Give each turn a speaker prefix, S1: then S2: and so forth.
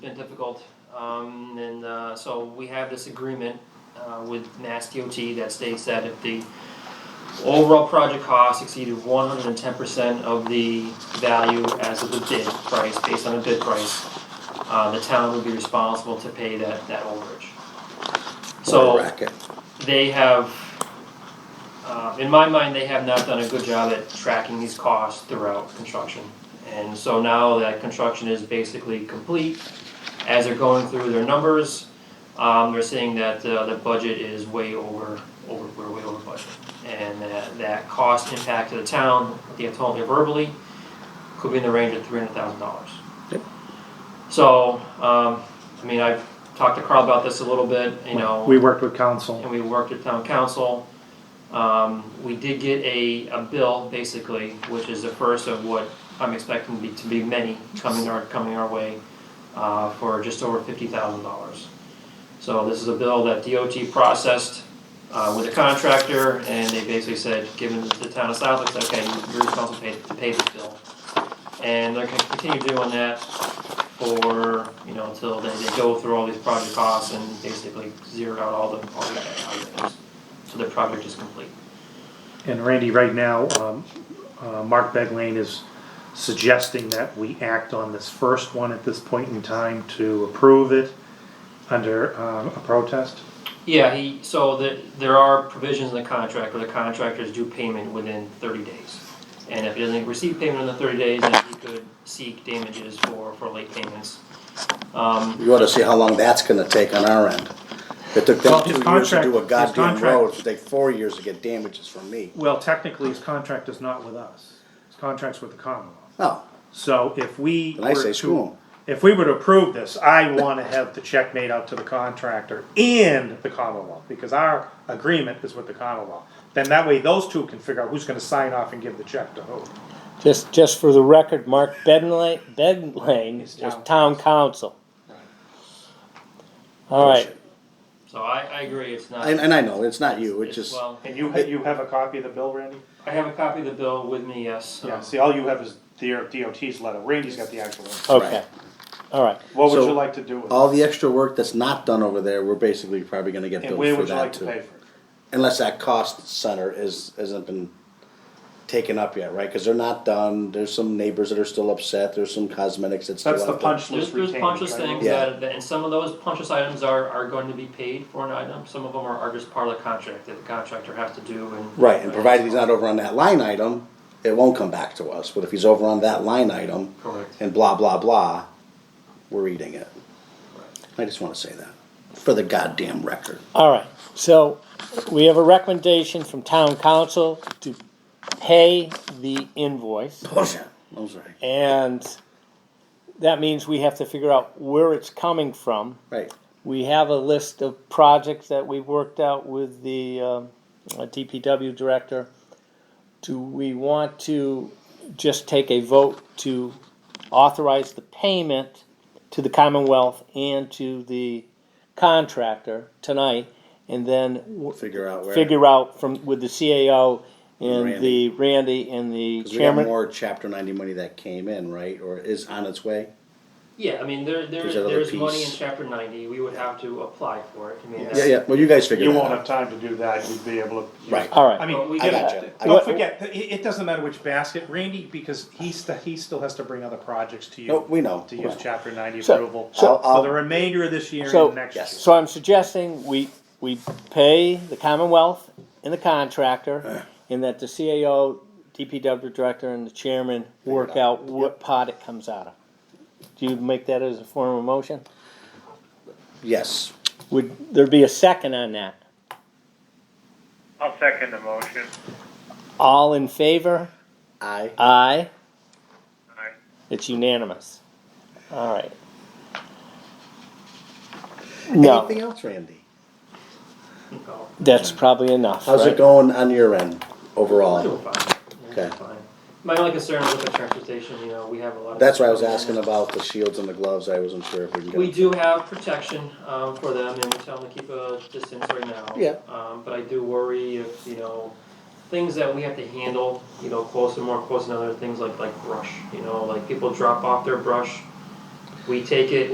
S1: been difficult. Um, and uh, so we have this agreement uh, with Mass DOT that states that if the overall project cost exceeded 110% of the value as of the bid price, based on the bid price, uh, the town would be responsible to pay that, that overage. So
S2: Racket.
S1: they have, uh, in my mind, they have not done a good job at tracking these costs throughout construction. And so now that construction is basically complete, as they're going through their numbers, um, they're saying that, uh, the budget is way over, over, we're way over budget. And that, that cost impact to the town, they have told me verbally, could be in the range of three hundred thousand dollars.
S2: Yep.
S1: So, um, I mean, I've talked to Carl about this a little bit, you know
S3: We worked with council.
S1: and we worked with town council. Um, we did get a, a bill, basically, which is the first of what I'm expecting to be, to be many coming our, coming our way, uh, for just over fifty thousand dollars. So this is a bill that DOT processed, uh, with a contractor, and they basically said, given the town of Southwick, said, okay, you're responsible to pay, to pay this bill. And they're gonna continue doing that for, you know, until they, they go through all these project costs and basically zero out all the, all the items. So the project is complete.
S3: And Randy, right now, um, uh, Mark Beglane is suggesting that we act on this first one at this point in time to approve it under um, a protest.
S1: Yeah, he, so the, there are provisions in the contract where the contractors do payment within thirty days. And if he doesn't receive payment in the thirty days, then he could seek damages for, for late payments. Um,
S2: You ought to see how long that's gonna take on our end. It took them
S3: Well,
S2: two
S3: his
S2: years to
S3: contract-
S2: do a
S3: his
S2: goddamn
S3: contract-
S2: road, it'll take four years to get damages from me.
S3: Well, technically, his contract is not with us. His contract's with the Commonwealth.
S2: Oh,
S3: So if we
S2: Then I
S3: were
S2: say
S3: to-
S2: screw 'em.
S3: If we were to approve this, I wanna have the check made out to the contractor and the Commonwealth, because our agreement is with the Commonwealth. Then that way, those two can figure out who's gonna sign off and give the check to who.
S4: Just, just for the record, Mark Bedlane, Bedlane
S3: Is
S4: is
S3: town
S4: town council. All right,
S1: so I, I agree, it's not.
S2: and, and I know, it's not you, it's
S1: it's-
S2: just,
S1: Well,
S3: And you, you have a copy of the bill, Randy?
S1: I have a copy of the bill with me, yes. um,
S3: Yeah, see, all you have is their DOT's letter, Randy's got the actual one.
S4: okay, all right.
S3: What would
S2: So-
S3: you like to do with it?
S2: all the extra work that's not done over there, we're basically probably gonna get
S3: And
S2: billed
S3: where
S2: for
S3: would you like
S2: that
S3: to
S2: too.
S3: pay for it?
S2: Unless that cost center is, hasn't been taken up yet, right? Cause they're not done, there's some neighbors that are still upset, there's some cosmetics that's still
S3: That's the
S2: out there.
S3: punch
S1: There's,
S3: list
S1: there's
S3: retained,
S1: punch list
S3: right?
S1: things
S2: Yeah.
S1: that, that- and some of those punch list items are, are going to be paid for an item, some of them are, are just part of the contract that the contractor has to do and.
S2: Right, and provided he's
S1: so-
S2: not over on that line item, it won't come back to us, but if he's over on that line item,
S1: Correct.
S2: and blah, blah, blah, we're eating it. I just wanna say that, for the goddamn record.
S4: All right, so we have a recommendation from town council to pay the invoice.
S2: Bullshit. I'm sorry.
S4: And that means we have to figure out where it's coming from.
S2: Right,
S4: We have a list of projects that we worked out with the um, uh, DPW director. Do we want to just take a vote to authorize the payment to the Commonwealth and to the contractor tonight? And then w-
S2: figure out where.
S4: figure out from, with the CAO and
S2: Randy.
S4: the Randy and the
S2: 'Cause we have
S4: chairman?
S2: more chapter ninety money that came in, right, or is on its way?
S1: Yeah, I mean, there, there,
S2: There's another
S1: there's money in
S2: piece.
S1: chapter ninety, we would have to apply for it, I mean,
S2: Yeah,
S1: that's,
S2: yeah, well, you guys figure
S3: You
S2: that
S3: won't have
S2: out.
S3: time to do that, you'd be able to.
S2: Right.
S4: All right.
S3: I
S1: Well, we
S3: mean,
S2: I
S1: get
S2: got you.
S3: don't forget, it, it doesn't matter which basket, Randy, because he st- he still has to bring other projects to you.
S2: No, we know.
S3: To use chapter ninety
S4: So-
S3: approval
S4: so-
S3: for the remainder of this year
S4: So,
S3: and next year.
S2: Yes.
S4: so I'm suggesting we, we pay the Commonwealth and the contractor, and that the CAO, DPW director, and the chairman work out what pot it comes out of. Do you make that as a form of motion?
S2: Yes,
S4: Would there be a second on that?
S5: I'll second the motion.
S4: All in favor?
S2: I,
S4: Aye.
S5: Aye.
S4: It's unanimous. All right. No,
S2: anything else, Randy?
S1: no,
S4: that's probably enough,
S2: How's it
S4: right?
S2: going on your end,
S1: we're
S2: overall?
S1: fine, Yeah, we're
S2: Okay.
S1: fine. My only concern is with the transportation, you know, we have a lot of.
S2: That's why I was asking about the shields and the gloves, I wasn't sure if we can get.
S1: We
S2: them.
S1: do have protection, um, for them, and we tell them to keep a distance right now.
S2: Yeah.
S1: Um, but I do worry if, you know, things that we have to handle, you know, closer, more close than other things like, like brush, you know, like people drop off their brush. We take it,